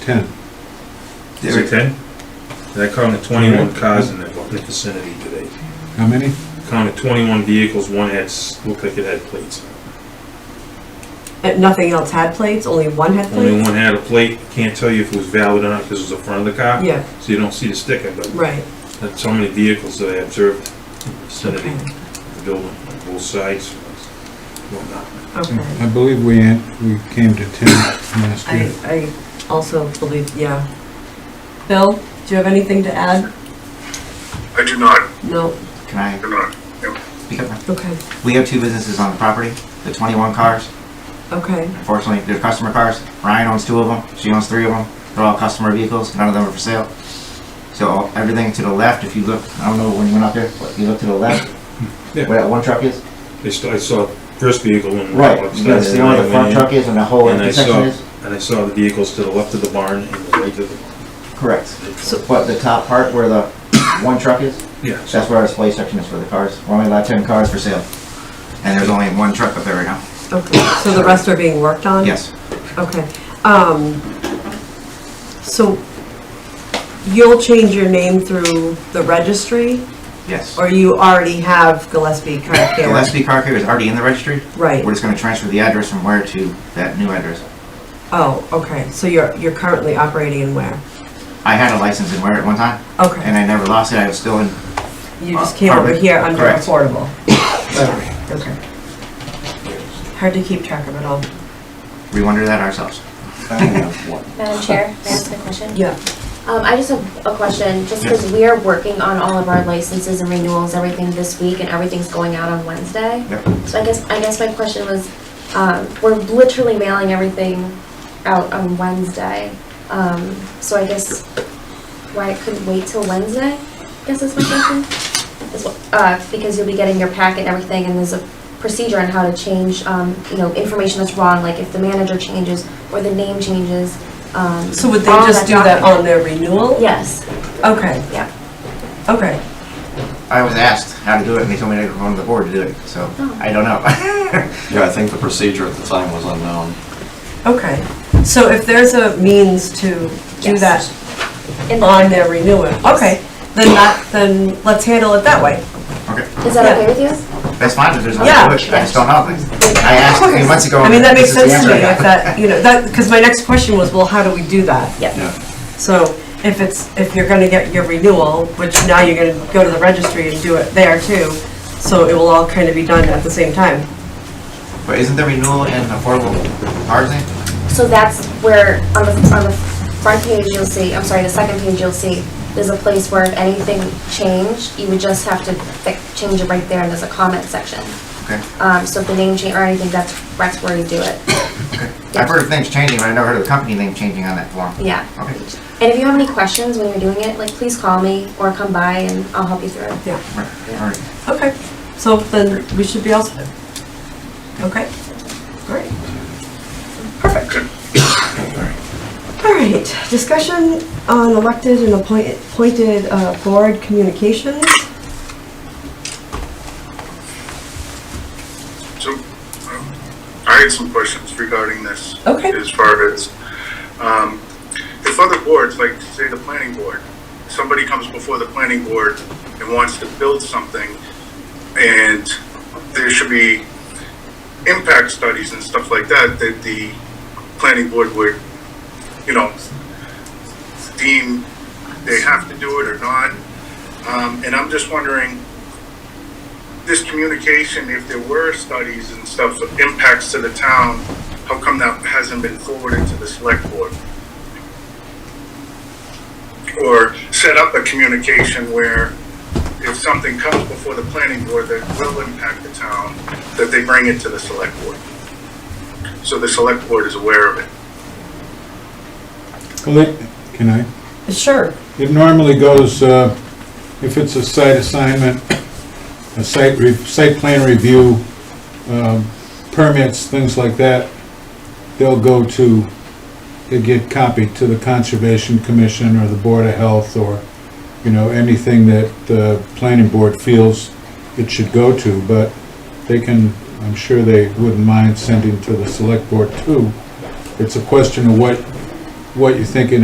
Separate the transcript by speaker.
Speaker 1: Ten.
Speaker 2: Is it ten? I counted twenty-one cars in the in the vicinity today.
Speaker 1: How many?
Speaker 2: Counted twenty-one vehicles, one had, s- looked like it had plates.
Speaker 3: And nothing else had plates, only one had
Speaker 2: Only
Speaker 3: plates?
Speaker 2: one had a plate, can't tell you if it was valid or not, because it was the front of the car.
Speaker 3: Yeah,
Speaker 2: So you don't see the sticker, but
Speaker 3: right.
Speaker 2: that's how many vehicles that I observed in the vicinity
Speaker 3: Okay,
Speaker 2: of the building, on both sides, whatnot.
Speaker 3: okay.
Speaker 1: I believe we, had- we came to ten last year.
Speaker 3: I, I also believe, yeah. Bill, do you have anything to add?
Speaker 4: I do not,
Speaker 3: No,
Speaker 5: Can I
Speaker 4: do not.
Speaker 5: speak up? now?
Speaker 3: okay,
Speaker 5: We have two businesses on the property, the 21 cars.
Speaker 3: okay,
Speaker 5: Unfortunately, they're customer cars. Ryan owns two of them, she owns three of them. They're all customer vehicles, none of them are for sale. So everything to the left, if you look, I don't know when you went up there, but you look to the left,
Speaker 2: Yeah.
Speaker 5: where that one truck is.
Speaker 2: They st I saw first vehicle in.
Speaker 5: Right,
Speaker 2: upstairs,
Speaker 5: you gotta see
Speaker 2: and I
Speaker 5: where the
Speaker 2: went
Speaker 5: front
Speaker 2: in,
Speaker 5: truck is and the whole
Speaker 2: And I
Speaker 5: intersection
Speaker 2: saw,
Speaker 5: is.
Speaker 2: and I saw the vehicles to the left of the barn and the right of the.
Speaker 5: Correct.
Speaker 3: So-
Speaker 5: But the top part where the one truck is,
Speaker 2: Yeah, so
Speaker 5: that's where our display section is for the cars. We're only allowed 10 cars for sale. And there's only one truck up there right now.
Speaker 3: okay. So the rest are being worked on?
Speaker 5: Yes,
Speaker 3: Okay. Um, so you'll change your name through the registry,
Speaker 5: yes.
Speaker 3: or you already have Gillespie Car Care?
Speaker 5: Gillespie Car Care is already in the registry.
Speaker 3: Right.
Speaker 5: We're just gonna transfer the address from where to that new address.
Speaker 3: Oh, okay, so you're, you're currently operating in where?
Speaker 5: I had a license in Ware at one time, and
Speaker 3: Okay,
Speaker 5: I never lost it, I was still in,
Speaker 3: you just came over here under
Speaker 5: Correct.
Speaker 3: affordable. Okay. Hard to keep track of it all.
Speaker 5: we wondered that ourselves.
Speaker 6: Madam Chair, may I ask a question?
Speaker 3: Yeah.
Speaker 6: Um, I just have a question, just because we are working on all of our licenses and renewals, everything this week, and everything's going out on Wednesday.
Speaker 5: Yep.
Speaker 6: So I guess, I guess my question was, um, we're literally mailing everything out on Wednesday. Um, so I guess why it couldn't wait till Wednesday, I guess is my question? Is what- Uh, because you'll be getting your packet and everything, and there's a procedure on how to change, um, you know, information that's wrong, like if the manager changes or the name changes, um.
Speaker 3: So would they
Speaker 6: all
Speaker 3: just do that
Speaker 6: document-
Speaker 3: on their renewal?
Speaker 6: Yes,
Speaker 3: Okay,
Speaker 6: yeah.
Speaker 3: okay.
Speaker 5: I was asked how to do it, and they told me to go to the board to do it, so
Speaker 3: Oh.
Speaker 5: I don't know.
Speaker 7: Yeah, I think the procedure at the time was unknown.
Speaker 3: Okay, so if there's a means to do
Speaker 6: Yes.
Speaker 3: that
Speaker 6: In the-
Speaker 3: on their renewal, okay, then that, then let's handle it that way.
Speaker 5: Okay,
Speaker 6: Is that
Speaker 3: Yeah.
Speaker 6: okay with you?
Speaker 5: that's fine, if there's no
Speaker 3: Yeah.
Speaker 5: way to do it, I just don't know. I asked a few months ago.
Speaker 3: I mean, that
Speaker 5: and
Speaker 3: makes
Speaker 5: this is the
Speaker 3: sense to me,
Speaker 5: answer I
Speaker 3: if
Speaker 5: got.
Speaker 3: that, you know, that, because my next question was, well, how do we do that?
Speaker 7: Yeah.
Speaker 3: So if it's, if you're gonna get your renewal, which now you're gonna go to the registry and do it there too, so it will all kind of be done at the same time.
Speaker 5: But isn't the renewal and affordable cars thing?
Speaker 6: So that's where, on the, on the front page, you'll see, I'm sorry, the second page, you'll see, there's a place where if anything changed, you would just have to fi- change it right there, and there's a comment section.
Speaker 5: Okay,
Speaker 6: Um, so if the name change or anything, that's, that's where you do it,
Speaker 5: I've heard of things changing, but I never heard of the company name changing on that form.
Speaker 6: yeah.
Speaker 5: Okay,
Speaker 6: And if you have any questions when you're doing it, like, please call me or come by and I'll help you through it.
Speaker 3: Yeah,
Speaker 5: right, all right.
Speaker 3: okay, so then we should be all set. Okay, great. Perfect. All right, discussion on elected and appointed, appointed uh, board communications.
Speaker 4: So, um, I had some questions regarding this.
Speaker 3: Okay.
Speaker 4: As far as, um, if other boards, like say the planning board, somebody comes before the planning board and wants to build something, and there should be impact studies and stuff like that, that the planning board would, you know, deem they have to do it or not. Um, and I'm just wondering, this communication, if there were studies and stuff, impacts to the town, how come that hasn't been forwarded to the select board? Or set up a communication where if something comes before the planning board that will impact the town, that they bring it to the select board? So the select board is aware of it.
Speaker 1: Well, it- Can I?
Speaker 3: Sure.
Speaker 1: It normally goes, uh, if it's a site assignment, a site, re- site plan review, um, permits, things like that, they'll go to, they get copied to the Conservation Commission or the Board of Health or, you know, anything that the planning board feels it should go to, but they can, I'm sure they wouldn't mind sending to the select board too. It's a question of what what you're thinking